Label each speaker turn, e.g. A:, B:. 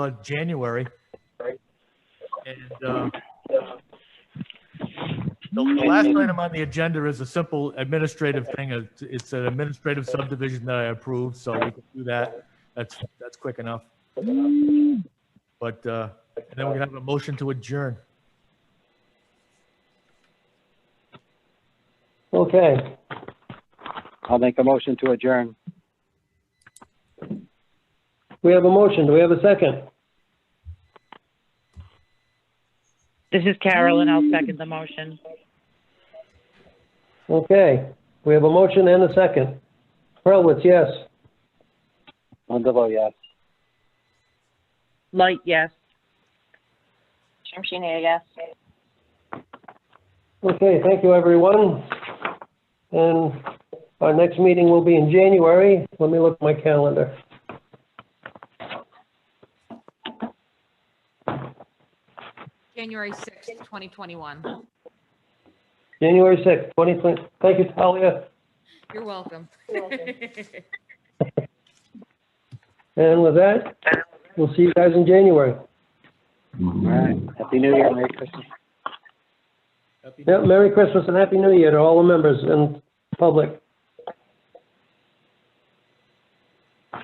A: uh, January. And um, the the last item on the agenda is a simple administrative thing. It's- It's an administrative subdivision that I approved, so we can do that. That's, that's quick enough. But uh, and then we can have a motion to adjourn.
B: Okay,
C: I'll make a motion to adjourn.
B: we have a motion. Do we have a second?
D: This is Carolyn. I'll second the motion.
B: Okay, we have a motion and a second. Hurlwitz, yes.
C: Mandeville, yes.
D: Light, yes.
E: Shamshina, yes.
B: Okay, thank you, everyone. And our next meeting will be in January. Let me look at my calendar.
F: January 6th, 2021.
B: January 6th, 2020. Thank you, Talia.
F: You're welcome.
B: And with that, we'll see you guys in January.
C: All right. Happy New Year, Merry Christmas.
B: Yeah, Merry Christmas and Happy New Year to all the members and public.